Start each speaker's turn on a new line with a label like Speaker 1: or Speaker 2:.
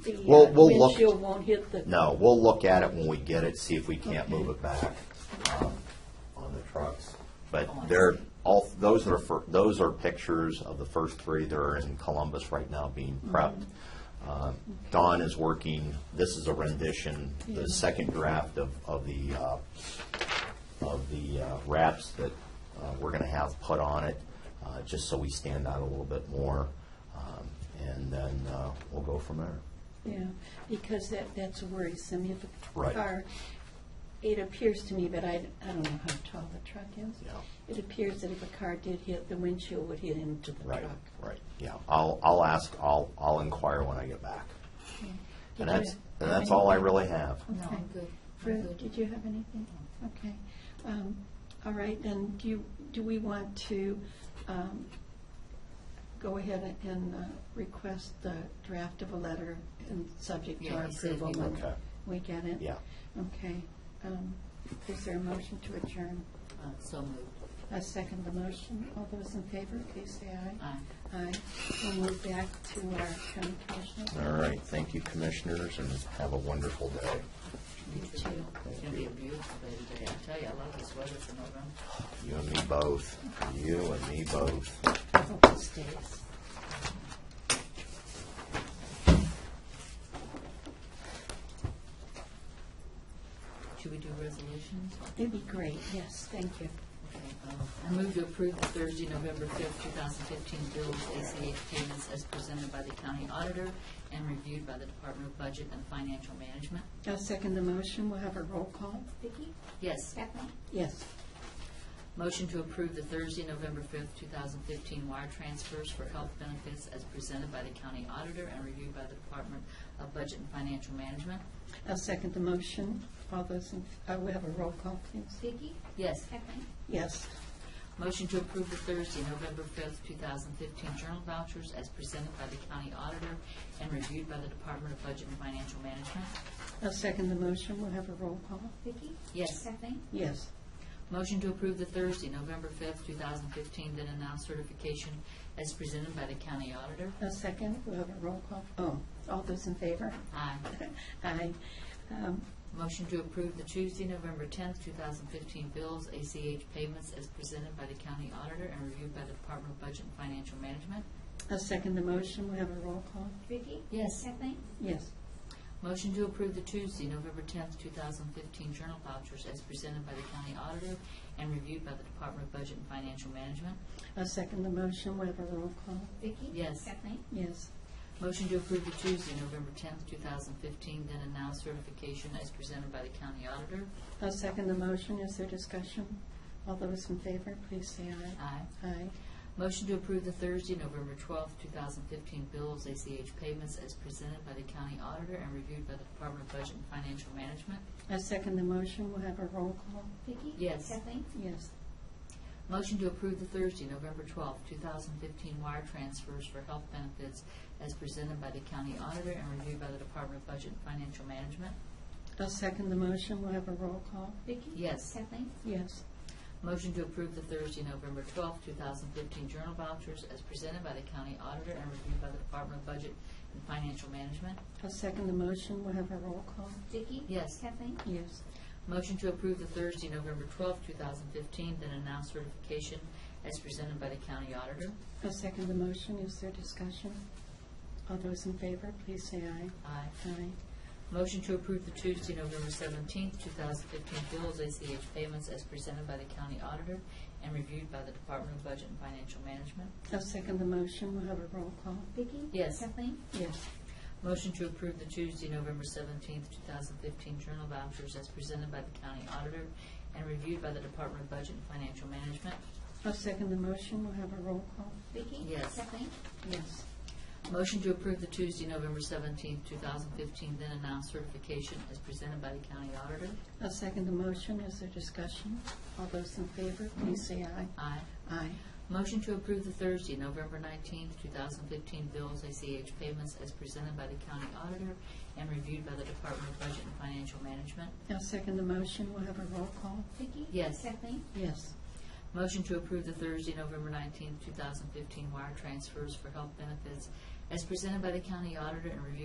Speaker 1: the
Speaker 2: We'll-
Speaker 1: uh,
Speaker 2: we'll look.
Speaker 1: windshield won't hit the.
Speaker 2: No, we'll look at it when we get it, see if we can't move it back um, on the trucks. But they're, all, those are, fir- those are pictures of the first three that are in Columbus right now being prepped. Uh, Don is working, this is a rendition, the second draft of, of the, uh, of the uh, wraps that uh, we're going to have put on it, uh, just so we stand out a little bit more. Um, And then uh, we'll go from there.
Speaker 1: Yeah, because that, that's worrisome if a
Speaker 2: Right.
Speaker 1: car, it appears to me, but I, I don't know how tall the truck is.
Speaker 2: Yeah.
Speaker 1: It appears that if a car did hit, the windshield would hit into the
Speaker 2: Right,
Speaker 1: truck.
Speaker 2: right, yeah. I'll, I'll ask, I'll, I'll inquire when I get back. And
Speaker 1: Did
Speaker 2: that's,
Speaker 1: you-
Speaker 2: and that's all I really have.
Speaker 3: No, I'm good. I'm
Speaker 1: Fred,
Speaker 3: good.
Speaker 1: did you have anything? Okay. Um, All right, then, do you, do we want to um, go ahead and uh, request the draft of a letter and subject to
Speaker 3: Yeah,
Speaker 1: our
Speaker 3: he said
Speaker 1: approval
Speaker 3: we
Speaker 1: when
Speaker 2: would. Okay.
Speaker 1: we get it?
Speaker 2: Yeah.
Speaker 1: Okay. Um, Is there a motion to adjourn?
Speaker 3: Uh, So moved.
Speaker 1: I second the motion. All those in favor, please say aye.
Speaker 3: Aye.
Speaker 1: Aye. We'll move back to our county commissioner.
Speaker 2: All right, thank you, commissioners, and have a wonderful day.
Speaker 3: You too. It'll be a beautiful day today. I tell you, I love this weather for November.
Speaker 2: You and me both, you and me both.
Speaker 1: I hope it stays.
Speaker 3: Should we do resolutions?
Speaker 1: It'd be great, yes, thank you.
Speaker 3: Okay, uh, I move to approve the Thursday, November fifth, two thousand fifteen bill of ACH payments as presented by the county auditor and reviewed by the Department of Budget and Financial Management.
Speaker 1: I'll second the motion. We'll have a roll call.
Speaker 4: Vicki?
Speaker 3: Yes.
Speaker 4: Kathleen?
Speaker 1: Yes.
Speaker 3: Motion to approve the Thursday, November fifth, two thousand fifteen wire transfers for health benefits as presented by the county auditor and reviewed by the Department of Budget and Financial Management.
Speaker 1: I'll second the motion. All those, in uh, we have a roll call, please.
Speaker 4: Vicki?
Speaker 3: Yes.
Speaker 4: Kathleen?
Speaker 1: Yes.
Speaker 3: Motion to approve the Thursday, November fifth, two thousand fifteen journal vouchers as presented by the county auditor and reviewed by the Department of Budget and Financial Management.
Speaker 1: I'll second the motion. We'll have a roll call.
Speaker 4: Vicki?
Speaker 3: Yes.
Speaker 4: Kathleen?
Speaker 1: Yes.
Speaker 3: Motion to approve the Thursday, November fifth, two thousand fifteen then announced certification as presented by the county auditor.
Speaker 1: I'll second. We'll have a roll call. Oh, all those in favor?
Speaker 3: Aye.
Speaker 1: Aye. Um,
Speaker 3: Motion to approve the Tuesday, November tenth, two thousand fifteen bills, ACH payments as presented by the county auditor and reviewed by the Department of Budget and Financial Management.
Speaker 1: I'll second the motion. We'll have a roll call.
Speaker 4: Vicki?
Speaker 3: Yes.
Speaker 4: Kathleen?
Speaker 1: Yes.
Speaker 3: Motion to approve the Tuesday, November tenth, two thousand fifteen journal vouchers as presented by the county auditor and reviewed by the Department of Budget and Financial Management.
Speaker 1: I'll second the motion. We'll have a roll call.
Speaker 4: Vicki?
Speaker 3: Yes.
Speaker 4: Kathleen?
Speaker 1: Yes.
Speaker 3: Motion to approve the Tuesday, November tenth, two thousand fifteen then announced certification as presented by the county auditor.
Speaker 1: I'll second the motion. Is there discussion? All those in favor, please say aye.
Speaker 3: Aye.
Speaker 1: Aye.
Speaker 3: Motion to approve the Thursday, November twelfth, two thousand fifteen bills, ACH payments as presented by the county auditor and reviewed by the Department of Budget and Financial Management.
Speaker 1: I'll second the motion. We'll have a roll call.
Speaker 4: Vicki?
Speaker 3: Yes.
Speaker 4: Kathleen?
Speaker 1: Yes.
Speaker 3: Motion to approve the Thursday, November twelfth, two thousand fifteen wire transfers for health benefits as presented by the county auditor and reviewed by the Department of Budget and Financial Management.
Speaker 1: I'll second the motion. We'll have a roll call.
Speaker 4: Vicki?
Speaker 3: Yes.
Speaker 4: Kathleen?
Speaker 1: Yes.
Speaker 3: Motion to approve the Thursday, November twelfth, two thousand fifteen journal vouchers as presented by the county auditor and reviewed by the Department of Budget and Financial Management.
Speaker 1: I'll second the motion. We'll have a roll call.
Speaker 4: Vicki?
Speaker 3: Yes.
Speaker 4: Kathleen?
Speaker 1: Yes.
Speaker 3: Motion to approve the Thursday, November twelfth, two thousand fifteen, then announce certification as presented by the county auditor.
Speaker 1: I'll second the motion. Is there discussion? All those in favor, please say aye.
Speaker 3: Aye.
Speaker 1: Aye.
Speaker 3: Motion to approve the Tuesday, November seventeenth, two thousand fifteen bills, ACH payments as presented by the county auditor and reviewed by the Department of Budget and Financial Management.
Speaker 1: I'll second the motion. We'll have a roll call.
Speaker 4: Vicki?
Speaker 3: Yes.
Speaker 4: Kathleen?
Speaker 1: Yes.
Speaker 3: Motion to approve the Tuesday, November seventeenth, two thousand fifteen journal vouchers as presented by the county auditor and reviewed by the Department of Budget and Financial Management.
Speaker 1: I'll second the motion. We'll have a roll call.
Speaker 4: Vicki?
Speaker 3: Yes.
Speaker 4: Kathleen?
Speaker 1: Yes.
Speaker 3: Motion to approve the Tuesday, November seventeenth, two thousand fifteen, then announced certification as presented by the county auditor.
Speaker 1: I'll second the motion. Is there discussion? All those in favor, please say aye.
Speaker 3: Aye.
Speaker 1: Aye.
Speaker 3: Motion to approve the Thursday, November nineteenth, two thousand fifteen bills, ACH payments as presented by the county auditor and reviewed by the Department of Budget and Financial Management.
Speaker 1: I'll second the motion. We'll have a roll call.
Speaker 4: Vicki?
Speaker 3: Yes.
Speaker 4: Kathleen?
Speaker 1: Yes.
Speaker 3: Motion to approve the Thursday, November nineteenth, two thousand fifteen wire transfers for health benefits as presented by the county auditor and reviewed